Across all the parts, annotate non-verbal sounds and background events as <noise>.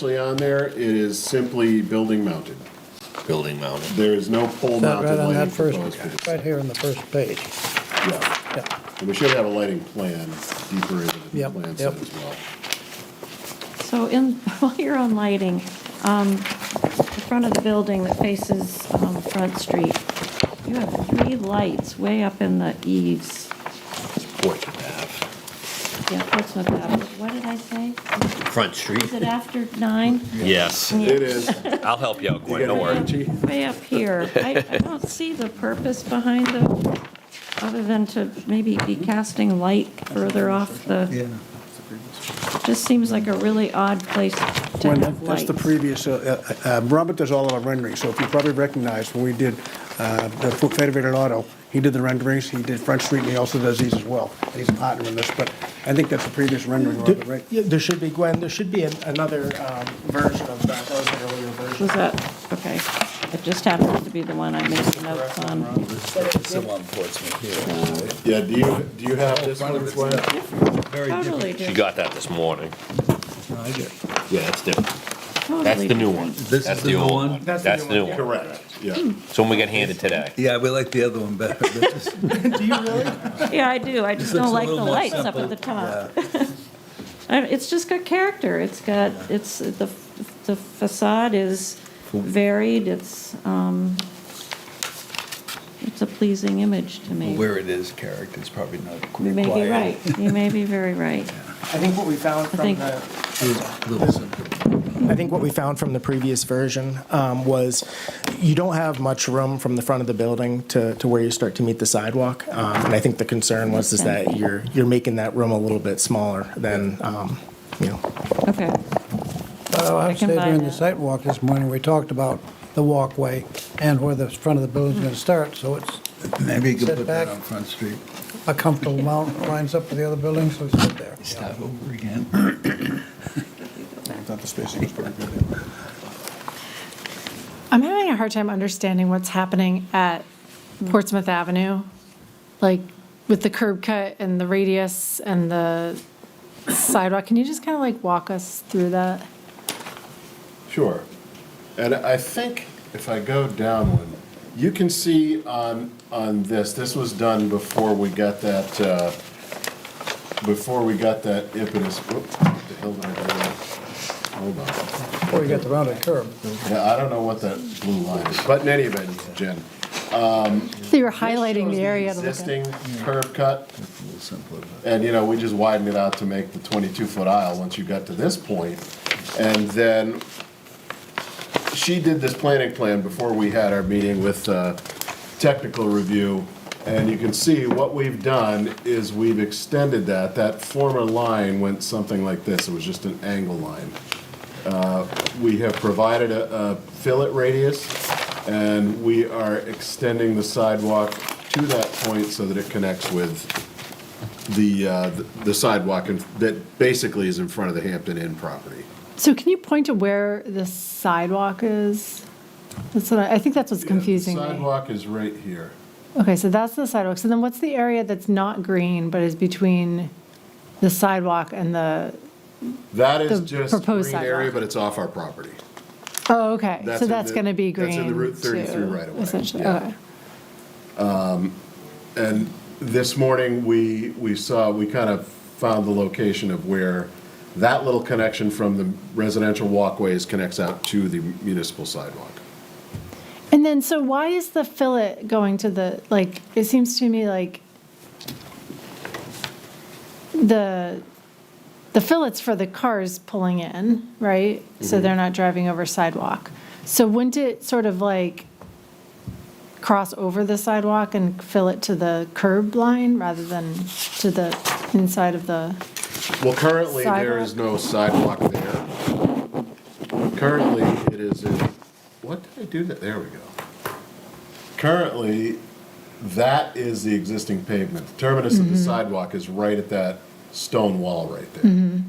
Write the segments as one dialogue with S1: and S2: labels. S1: actually on there, it is simply building mounted.
S2: building mounted.
S1: There is no pole
S3: That
S1: mounted
S3: right on
S1: lighting
S3: that first,
S1: proposed for this.
S3: right here on the first page.
S1: Yeah,
S3: Yeah,
S1: and we should have a lighting plan deeper into the
S3: Yep,
S1: plan set
S3: yep.
S1: as well.
S4: So in, <laughs> while you're on lighting, um, the front of the building that faces, um, Front Street, you have three lights way up in the eaves.
S2: It's Portsmouth
S4: Yeah, Portsmouth Avenue. What did I say?
S2: Ave. Front Street?
S4: Is it after nine?
S2: Yes.
S1: It is.
S2: I'll help you out, Gwen, don't worry.
S4: Way up here. I, I don't see the purpose behind them, other than to maybe be casting light further off the, just seems like a really odd place to
S5: When,
S4: have
S5: that's
S4: lights.
S5: the previous, uh, uh, uh, Robert does all of our renderings, so if you probably recognize, when we did uh, the Fo- Federated Auto, he did the renderings, he did Front Street, and he also does these as well, and he's a partner in this, but I think that's the previous rendering, Robert, right?
S6: Yeah, There should be, Gwen, there should be an- another um, version of that, that was an earlier version.
S4: Was that, okay. It just happens to be the one I made notes on.
S1: Yeah, do you, do you have this one, Gwen?
S4: Totally
S2: She
S4: different.
S2: got that this morning. Yeah, that's different.
S4: Totally
S2: That's the new
S4: different.
S2: one.
S7: This
S2: That's
S7: is the new
S2: old
S7: one?
S6: That's the
S2: That's
S6: new
S2: the new
S6: one,
S2: one.
S1: Correct, yeah.
S2: It's the one we got handed today.
S7: Yeah, we like the other one better.
S4: <laughs>
S7: This is-
S6: Do you really?
S4: Yeah, I do. I just
S7: looks
S4: don't
S7: a
S4: like the
S7: little more
S4: lights up
S7: simple.
S4: at the top. <laughs> I- It's just got character. It's got, it's, the the facade is varied. It's, um, it's a pleasing image to me.
S7: Where it is, character's probably not
S4: You
S7: required.
S4: may be right. You may be
S2: <laughs>
S4: very right.
S6: I think what we found from
S4: think-
S6: the,
S7: Little simple.
S6: I think what we found from the previous version um, was you don't have much room from the front of the building to, to where you start to meet the sidewalk. Um, And I think the concern was is that you're, you're making that room a little bit smaller than, um, you know,
S4: Okay.
S3: Well, I
S4: I can
S3: said
S4: buy
S3: during the
S4: that.
S3: sidewalk this morning, we talked about the walkway and where the front of the building's gonna start, so it's
S7: Maybe you
S3: Sit
S7: could put
S3: back.
S7: that on Front Street.
S3: a comfortable amount, lines up with the other buildings, so it's sit there.
S7: Start over again.
S5: I thought the spacing was pretty good.
S8: I'm having a hard time understanding what's happening at Portsmouth Avenue, like with the curb cut and the radius and the sidewalk. Can you just kind of like walk us through that?
S1: Sure. And I think if I go down one, you can see on, on this, this was done before we got that, uh, before we got that impetus, whoop, what the hell did I do? there? Hold on.
S3: Before you get the rounded curb.
S1: Yeah, I don't know what that blue line is, but in any event, Jen.
S8: So you're highlighting
S1: this shows
S8: the area to look at.
S1: Existing curve cut,
S7: A little simpler.
S1: and, you know, we just widened it out to make the 22-foot aisle once you got to this point. And then she did this planning plan before we had our meeting with uh, technical review. And you can see what we've done is we've extended that. That former line went something like this. It was just an angle line. Uh, We have provided a a fillet radius, and we are extending the sidewalk to that point so that it connects with the, uh, the sidewalk in- that basically is in front of the Hampton Inn property.
S8: So can you point to where the sidewalk is? That's what I, I think that's what's confusing
S1: The
S8: me.
S1: sidewalk is right here.
S8: Okay, so that's the sidewalk. So then what's the area that's not green but is between the sidewalk and the,
S1: That is
S8: The
S1: just
S8: proposed
S1: green area,
S8: sidewalk.
S1: but it's off our property.
S8: oh, okay.
S1: That's
S8: So
S1: in
S8: that's
S1: the-
S8: going to be green.
S1: that's in the Route 33
S8: too,
S1: right of way.
S8: Essentially,
S1: Yeah.
S8: okay.
S1: And this morning, we, we saw, we kind of found the location of where that little connection from the residential walkways connects out to the municipal sidewalk.
S8: And then, so why is the fillet going to the, like, it seems to me like the, the fillet's for the cars pulling in, right? So they're not driving over sidewalk. So wouldn't it sort of like cross over the sidewalk and fill it to the curb line rather than to the inside of the,
S1: Well, currently, there is no sidewalk there. Currently, it is in, what did I do that, there we go. Currently, that is the existing pavement. The Terminus of the sidewalk is right at that stone wall right there.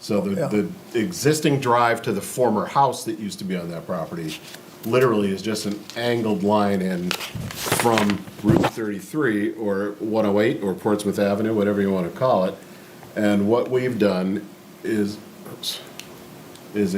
S1: So the, the existing drive to the former house that used to be on that property literally is just an angled line in from Route 33 or 108 or Portsmouth Avenue, whatever you want to call it. And what we've done is, oops,